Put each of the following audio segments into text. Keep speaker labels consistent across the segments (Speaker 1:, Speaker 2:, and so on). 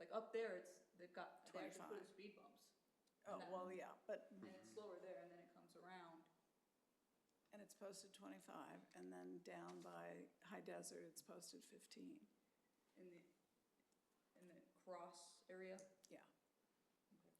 Speaker 1: Like up there, it's, they've got, they actually put
Speaker 2: 25.
Speaker 1: in speed bumps,
Speaker 2: Oh,
Speaker 1: No.
Speaker 2: well, yeah, but,
Speaker 1: and it's slower there, and then it comes around.
Speaker 2: and it's posted 25, and then down by High Desert, it's posted 15.
Speaker 1: in the, in the cross area.
Speaker 2: Yeah,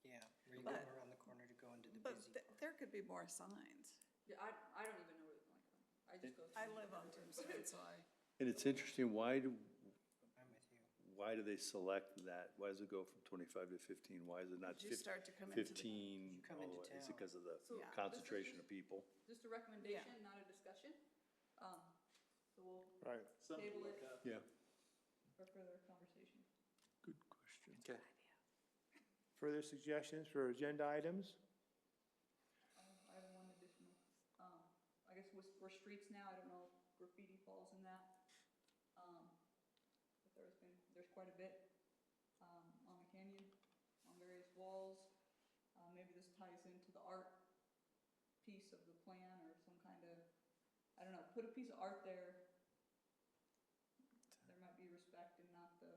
Speaker 3: Yeah, where you go
Speaker 2: But-
Speaker 3: around the corner to go into the
Speaker 2: but
Speaker 3: busy
Speaker 2: th-
Speaker 3: part.
Speaker 2: there could be more signs.
Speaker 1: Yeah, I, I don't even know where the, like, I just go.
Speaker 2: I
Speaker 1: through
Speaker 2: live on
Speaker 1: everywhere.
Speaker 2: Tombstone, so I,
Speaker 4: And it's interesting, why do,
Speaker 3: I'm with you.
Speaker 4: why do they select that? Why does it go from twenty-five to fifteen? Why is it not
Speaker 2: Did you
Speaker 4: fif-
Speaker 2: start to come into the-
Speaker 4: fifteen?
Speaker 3: You come into
Speaker 4: all the way? Is
Speaker 3: town.
Speaker 4: it because of
Speaker 1: So
Speaker 4: the
Speaker 1: Yeah.
Speaker 4: concentration of people?
Speaker 1: Just a recommendation, not a discussion. Um, so we'll
Speaker 4: Right.
Speaker 1: table it
Speaker 4: Yeah,
Speaker 1: for further conversation.
Speaker 4: good question.
Speaker 5: Okay. Further suggestions for agenda items?
Speaker 1: Um, I have one additional, um, I guess we're, we're streets now, I don't know if graffiti falls in that. Um, but there's been, there's quite a bit, um, on the canyon, on various walls. Uh, maybe this ties into the art piece of the plan or some kind of, I don't know, put a piece of art there. There might be respect and not the,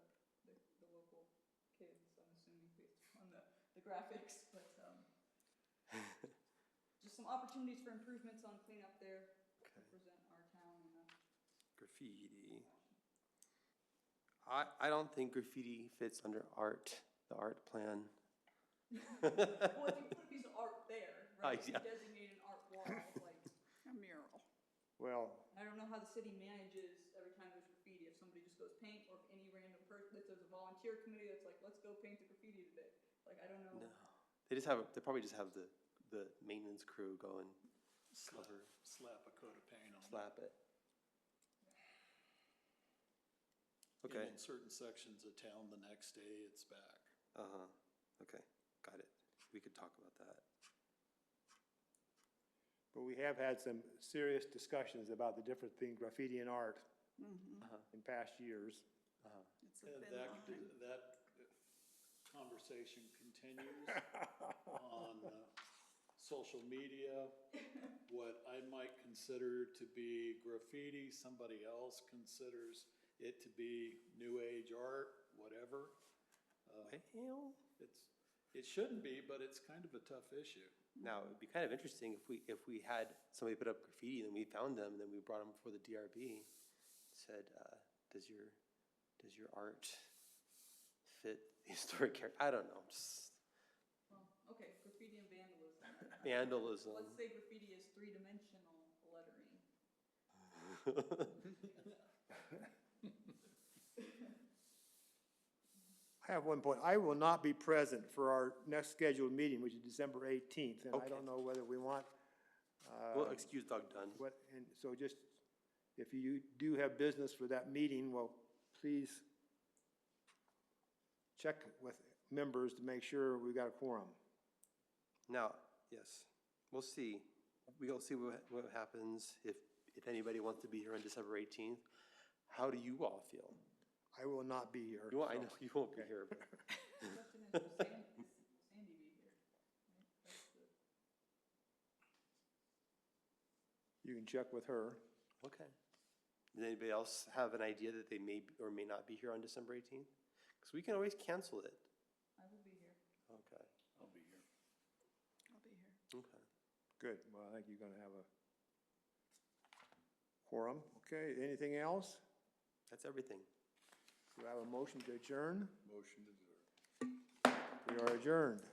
Speaker 1: the, the local kids, I'm assuming based on the, the graphics, but, um, just some opportunities for improvements on cleanup there to
Speaker 5: Okay.
Speaker 1: present our town in a
Speaker 5: Graffiti. I, I don't think graffiti fits under art, the art plan.
Speaker 1: Well, if you put a piece of art there, right, if you
Speaker 5: Uh, yeah.
Speaker 1: designate an art wall, like,
Speaker 2: a mural.
Speaker 5: Well,
Speaker 1: I don't know how the city manages every time there's graffiti, if somebody just goes paint, or if any random person, if there's a volunteer committee that's like, let's go paint the graffiti today, like, I don't know.
Speaker 5: no. They just have, they probably just have the, the maintenance crew go and
Speaker 6: Slap,
Speaker 5: cover,
Speaker 6: slap a coat of paint on it.
Speaker 5: slap it.
Speaker 6: And
Speaker 5: Okay,
Speaker 6: in certain sections of town, the next day it's back.
Speaker 5: uh-huh, okay, got it. We could talk about that.
Speaker 7: But we have had some serious discussions about the difference between graffiti and art
Speaker 5: Uh-huh.
Speaker 7: in past years.
Speaker 2: It's a
Speaker 6: And
Speaker 2: thin
Speaker 6: that,
Speaker 2: line.
Speaker 6: that conversation continues on uh, social media. What I might consider to be graffiti, somebody else considers it to be new age art, whatever.
Speaker 5: Well,
Speaker 6: It's, it shouldn't be, but it's kind of a tough issue.
Speaker 5: now, it'd be kind of interesting if we, if we had somebody put up graffiti and we found them, and then we brought them before the DRB, said, uh, does your, does your art fit the historic character? I don't know, just
Speaker 1: Well, okay, graffiti and vandalism, let's
Speaker 5: vandalism.
Speaker 1: say graffiti is three-dimensional lettering.
Speaker 7: I have one point. I will not be present for our next scheduled meeting, which is December 18th. And I
Speaker 5: Okay.
Speaker 7: don't know whether we want, uh,
Speaker 5: Well, excuse Doug Dunn.
Speaker 7: what, and so just, if you do have business for that meeting, well, please check with members to make sure we've got a quorum.
Speaker 5: Now, yes, we'll see. We'll see what, what happens if, if anybody wants to be here on December eighteenth. How do you all feel?
Speaker 7: I will not be here.
Speaker 5: You, I know you won't be here, but
Speaker 1: Question is, will Sandy, will Sandy be here? Right, that's the-
Speaker 7: You can check with her.
Speaker 5: Okay. Does anybody else have an idea that they may or may not be here on December 18th? Because we can always cancel it.
Speaker 1: I will be here.
Speaker 5: Okay,
Speaker 6: I'll be here.
Speaker 2: I'll be here.
Speaker 5: okay.
Speaker 7: Good, well, I think you're gonna have a quorum. Okay, anything else?
Speaker 5: That's everything.
Speaker 7: Do I have a motion to adjourn?
Speaker 6: Motion to adjourn.
Speaker 7: We are adjourned.